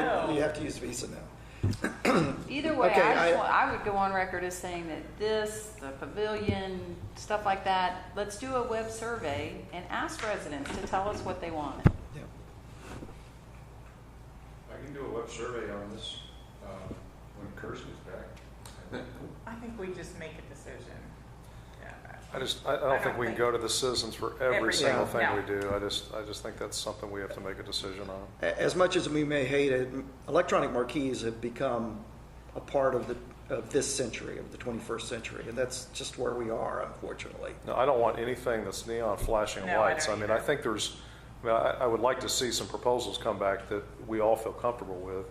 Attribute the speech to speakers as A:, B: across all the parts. A: now, you have to use Visa now.
B: Either way,
A: Okay,
B: I,
A: I-
B: just want, I would go on record as saying that this, the pavilion, stuff like that, let's do a web survey and ask residents to tell us what they want.
A: Yeah.
C: I can do a web survey on this um, when Kirsten is back.
D: I think we just make a decision. Yeah.
E: I just, I I don't think we can go to the citizens for every
D: Every-
E: single
A: yeah,
E: thing
D: no.
E: we do. I just, I just think that's something we have to make a decision on.
A: A- As much as we may hate it, electronic marquees have become a part of the, of this century, of the 21st century, and that's just where we are, unfortunately.
E: No, I don't want anything that's neon flashing
D: No, I
E: lights. I
D: don't
E: mean, I
D: either.
E: think there's, I mean, I, I would like to see some proposals come back that we all feel comfortable with.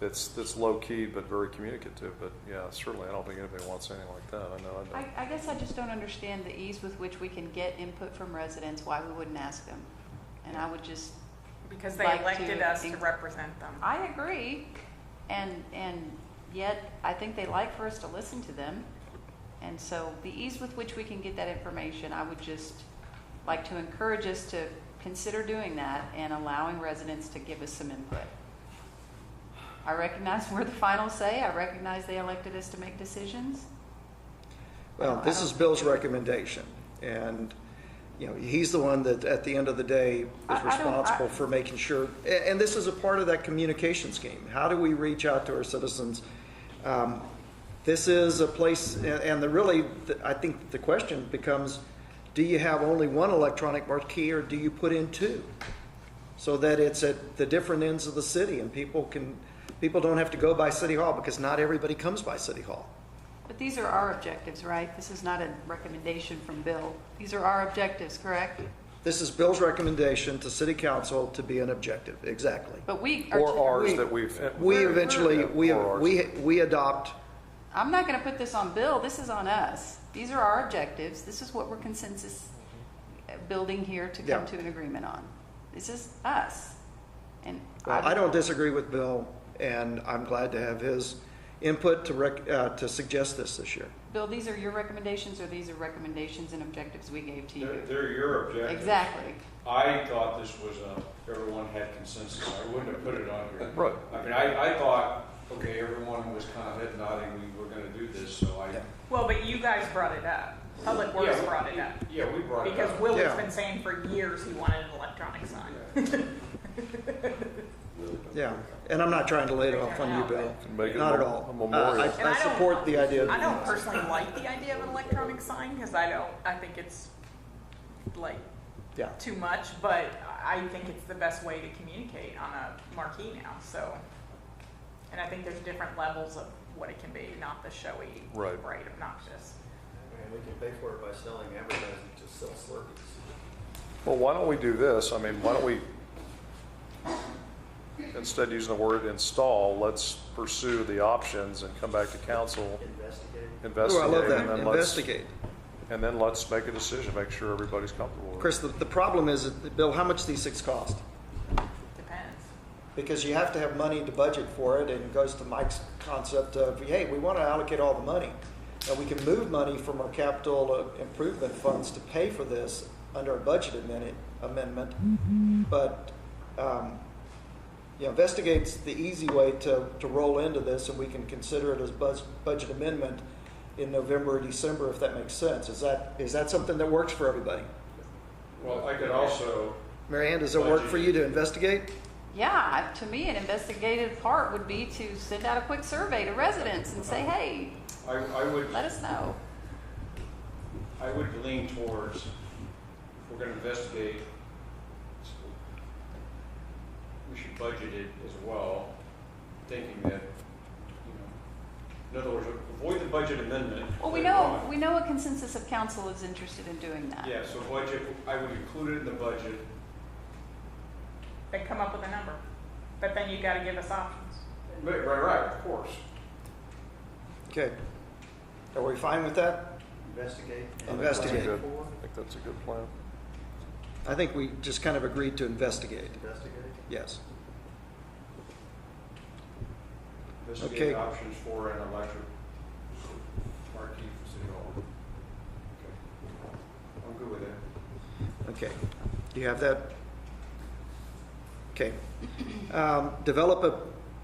E: That's, that's low key but very communicative, but yeah, certainly I don't think anybody wants anything like that. I know, I
B: I,
E: don't.
B: I guess I just don't understand the ease with which we can get input from residents, why we wouldn't ask them. And I would just,
D: Because they
B: Like to
D: elected us to
B: inc-
D: represent them.
B: I agree, and, and yet, I think they like for us to listen to them. And so the ease with which we can get that information, I would just like to encourage us to consider doing that and allowing residents to give us some input. I recognize we're the final say, I recognize they elected us to make decisions.
A: Well, this is Bill's recommendation, and, you know, he's the one that, at the end of the day,
B: I- I
A: is
B: don't-
A: responsible
B: I-
A: for making sure, a- and this is a part of that communication scheme. How do we reach out to our citizens? Um, This is a place, and- and the really, the- I think the question becomes, do you have only one electronic marquee, or do you put in two? So that it's at the different ends of the city, and people can, people don't have to go by City Hall, because not everybody comes by City Hall.
B: But these are our objectives, right? This is not a recommendation from Bill. These are our objectives, correct?
A: This is Bill's recommendation to city council to be an objective, exactly.
B: But we are.
E: Or ours
A: we-
E: that we've.
A: We eventually, we,
E: Or ours.
A: we, we adopt,
B: I'm not going to put this on Bill. This is on us. These are our objectives. This is what we're consensus uh, building here to come
A: Yeah.
B: to an agreement on. This is us. And
A: well,
B: I-
A: uh, I don't disagree with Bill, and I'm glad to have his input to rec, uh, to suggest this this year.
B: Bill, these are your recommendations, or these are recommendations and objectives we gave to
C: They're,
B: you?
C: they're your objectives.
B: Exactly.
C: I thought this was a, everyone had consensus. I wouldn't have put it on here.
E: Right.
C: I mean, I, I thought, okay, everyone was kind of head nodding, we were gonna do this, so I.
A: Yeah.
D: Well, but you guys brought it up. Public Works
C: Yeah, we-
D: brought it up.
C: Yeah, we brought it
D: Because
C: up.
D: Willie's
A: Yeah.
D: been saying for years he wanted an electronic sign.
A: Yeah, and I'm not trying to lay it off on you, Bill,
E: Make it
A: not at
E: a
A: all.
E: memorial.
A: Uh, I, I support the idea. of
D: I don't
A: doing this.
D: personally like the idea of an electronic sign because I don't, I think it's like
A: Yeah,
D: too much, but I think it's the best way to communicate on a marquee now, so. And I think there's different levels of what it can be, not the showy,
E: Right.
D: bright, obnoxious.
F: And we can pay for it by selling advertising to sell Slurpees.
E: Well, why don't we do this? I mean, why don't we, instead of using the word install, let's pursue the options and come back to council,
F: Investigate.
A: Ooh, I
E: investigate.
A: love
E: and
A: that,
E: then let's-
A: investigate.
E: And then let's make a decision, make sure everybody's comfortable with it.
A: Chris, the, the problem is, that- Bill, how much these things cost?
D: Depends.
A: because you have to have money to budget for it, and it goes to Mike's concept of, hey, we want to allocate all the money. And we can move money from our capital uh, improvement funds to pay for this under a budget amendment, amendment. But, um, you know, investigates the easy way to, to roll into this, and we can consider it as buzz, budget amendment in November or December, if that makes sense. Is that, is that something that works for everybody?
C: Well, I could also,
A: Mary Ann, does it work for you to investigate?
B: Yeah, I- to me, an investigative part would be to send out a quick survey to residents and say, hey,
C: I, I would,
B: let us know.
C: I would lean towards, if we're gonna investigate, we should budget it as well, thinking that, you know, in other words, avoid the budget amendment.
B: Well, we
C: later
B: know,
C: on.
B: we know a consensus of council is interested in doing that.
C: Yeah, so budget, I would include it in the budget.
D: Then come up with a number. But then you gotta give us options.
C: Right, right, right, of course.
A: Okay. Are we fine with that?
F: Investigate.
E: I think that's a
A: Investigate.
E: good- I think that's a good plan.
A: I think we just kind of agreed to investigate,
F: Investigate.
A: yes. Okay.
C: Investigate options for an electric marquee for City Hall. Okay. I'm good with that.
A: Okay, do you have that? Okay. Um, Develop